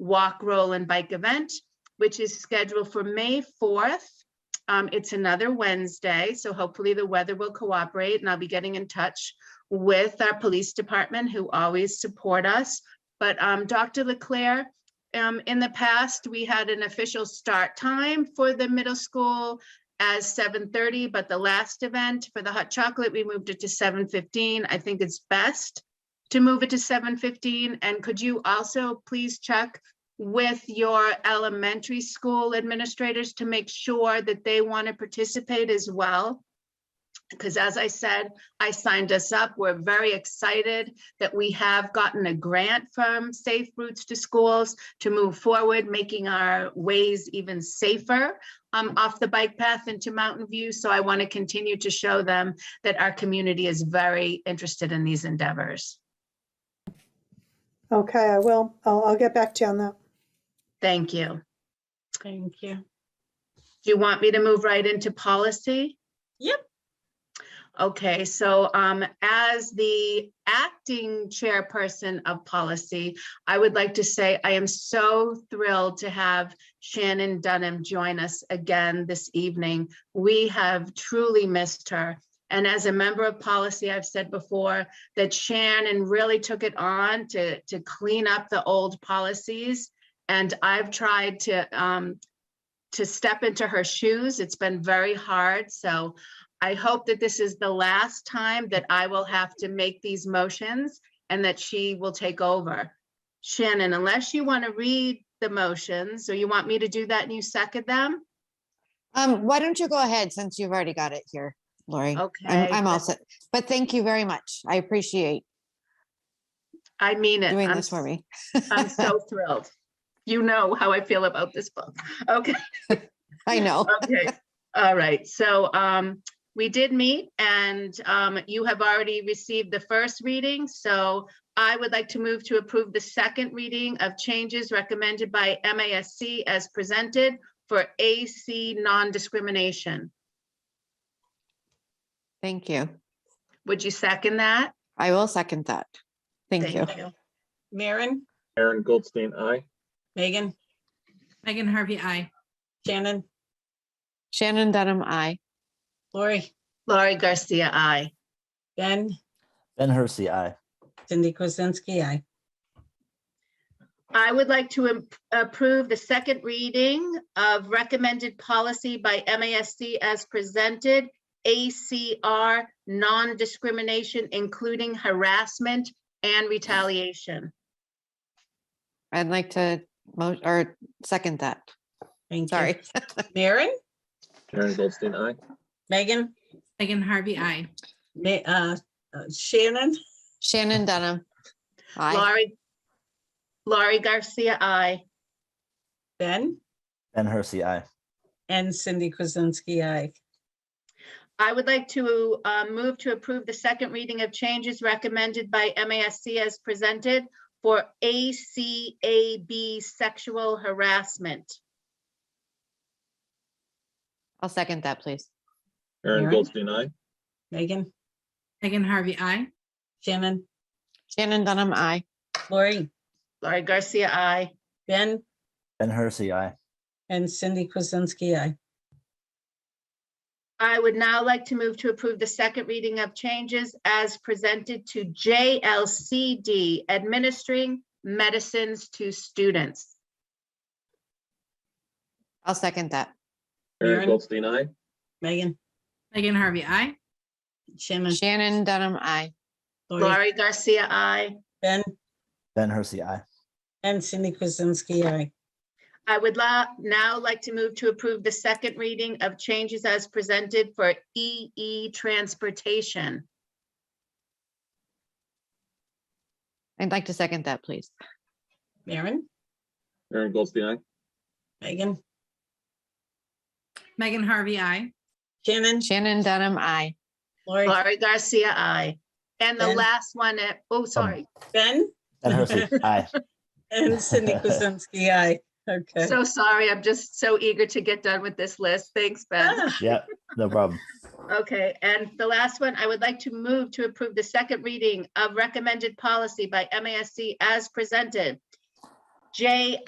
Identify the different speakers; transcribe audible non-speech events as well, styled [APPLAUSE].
Speaker 1: walk, roll, and bike event, which is scheduled for May 4th. Um, It's another Wednesday, so hopefully the weather will cooperate and I'll be getting in touch with our police department who always support us. But um, Dr. Leclerc, um, in the past, we had an official start time for the middle school as 7:30, but the last event for the hot chocolate, we moved it to 7:15. I think it's best to move it to 7:15. And could you also please check with your elementary school administrators to make sure that they want to participate as well? Because as I said, I signed us up. We're very excited that we have gotten a grant from Safe Routes to Schools to move forward, making our ways even safer um, off the bike path into Mountain View. So I want to continue to show them that our community is very interested in these endeavors.
Speaker 2: Okay, I will. I'll, I'll get back to you on that.
Speaker 1: Thank you.
Speaker 3: Thank you.
Speaker 1: Do you want me to move right into policy?
Speaker 3: Yep.
Speaker 1: Okay, so um, as the acting chairperson of policy, I would like to say I am so thrilled to have Shannon Dunham join us again this evening. We have truly missed her. And as a member of policy, I've said before that Shannon really took it on to, to clean up the old policies. And I've tried to um, to step into her shoes. It's been very hard, so I hope that this is the last time that I will have to make these motions and that she will take over. Shannon, unless you want to read the motions, or you want me to do that and you second them?
Speaker 4: Um, why don't you go ahead since you've already got it here, Lori?
Speaker 1: Okay.
Speaker 4: I'm, I'm all set, but thank you very much. I appreciate
Speaker 1: I mean it.
Speaker 4: doing
Speaker 1: I'm
Speaker 4: this for me.
Speaker 1: I'm
Speaker 4: [LAUGHS]
Speaker 1: so thrilled. You know how I feel about this book. Okay.
Speaker 4: I know.
Speaker 1: Okay, all right, so um, we did meet and um, you have already received the first reading, so I would like to move to approve the second reading of changes recommended by MASC as presented for AC non-discrimination.
Speaker 4: Thank you.
Speaker 1: Would you second that?
Speaker 4: I will second that. Thank you.
Speaker 3: Maren,
Speaker 5: Aaron Goldstein, aye.
Speaker 3: Megan,
Speaker 6: Megan Harvey, I.
Speaker 3: Shannon,
Speaker 4: Shannon Dunham, I.
Speaker 3: Lori,
Speaker 1: Laurie Garcia, I.
Speaker 3: Ben,
Speaker 7: Ben Hersey, aye.
Speaker 3: Cindy Kuzensky, aye.
Speaker 1: I would like to im- approve the second reading of recommended policy by MASC as presented, ACR, non-discrimination, including harassment and retaliation.
Speaker 4: I'd like to mo, or second that.
Speaker 3: Thank you.
Speaker 4: Sorry.
Speaker 3: [LAUGHS] Maren,
Speaker 5: Aaron Goldstein, aye.
Speaker 3: Megan,
Speaker 6: Megan Harvey, I.
Speaker 3: Ma- uh, uh, Shannon,
Speaker 4: [LAUGHS] Shannon Dunham. I.
Speaker 1: Laurie, Laurie Garcia, I.
Speaker 3: Ben,
Speaker 7: Ben Hersey, aye.
Speaker 3: and Cindy Kuzensky, aye.
Speaker 1: I would like to uh, move to approve the second reading of changes recommended by MASC as presented for ACAB sexual harassment.
Speaker 4: I'll second that, please.
Speaker 5: Aaron
Speaker 3: Aaron?
Speaker 5: Goldstein, aye.
Speaker 3: Megan,
Speaker 6: Megan Harvey, I.
Speaker 3: Shannon,
Speaker 4: Shannon Dunham, I.
Speaker 3: Lori,
Speaker 1: Laurie Garcia, I.
Speaker 3: Ben,
Speaker 7: Ben Hersey, aye.
Speaker 3: and Cindy Kuzensky, aye.
Speaker 1: I would now like to move to approve the second reading of changes as presented to JLCD, administering medicines to students.
Speaker 4: I'll second that.
Speaker 3: Aaron?
Speaker 5: Aaron Goldstein, aye.
Speaker 3: Megan,
Speaker 6: Megan Harvey, I.
Speaker 3: Shannon,
Speaker 4: Shannon Dunham, I.
Speaker 3: Lori,
Speaker 1: Laurie Garcia, I.
Speaker 3: Ben,
Speaker 7: Ben Hersey, aye.
Speaker 3: and Cindy Kuzensky, aye.
Speaker 1: I would la- now like to move to approve the second reading of changes as presented for EE transportation.
Speaker 4: I'd like to second that, please.
Speaker 3: Maren,
Speaker 5: Aaron Goldstein, aye.
Speaker 3: Megan,
Speaker 6: Megan Harvey, I.
Speaker 3: Shannon,
Speaker 4: Shannon Dunham, I.
Speaker 3: Lori,
Speaker 1: Laurie Garcia, I. And the
Speaker 3: Ben?
Speaker 1: last one, uh, oh, sorry.
Speaker 3: Ben,
Speaker 7: Ben Hersey, aye.
Speaker 3: and Cindy Kuzensky, aye. Okay.
Speaker 1: So sorry. I'm just so eager to get done with this list. Thanks, Ben.
Speaker 3: Ah,
Speaker 7: Yep, no problem.
Speaker 1: Okay, and the last one, I would like to move to approve the second reading of recommended policy by MASC as presented. J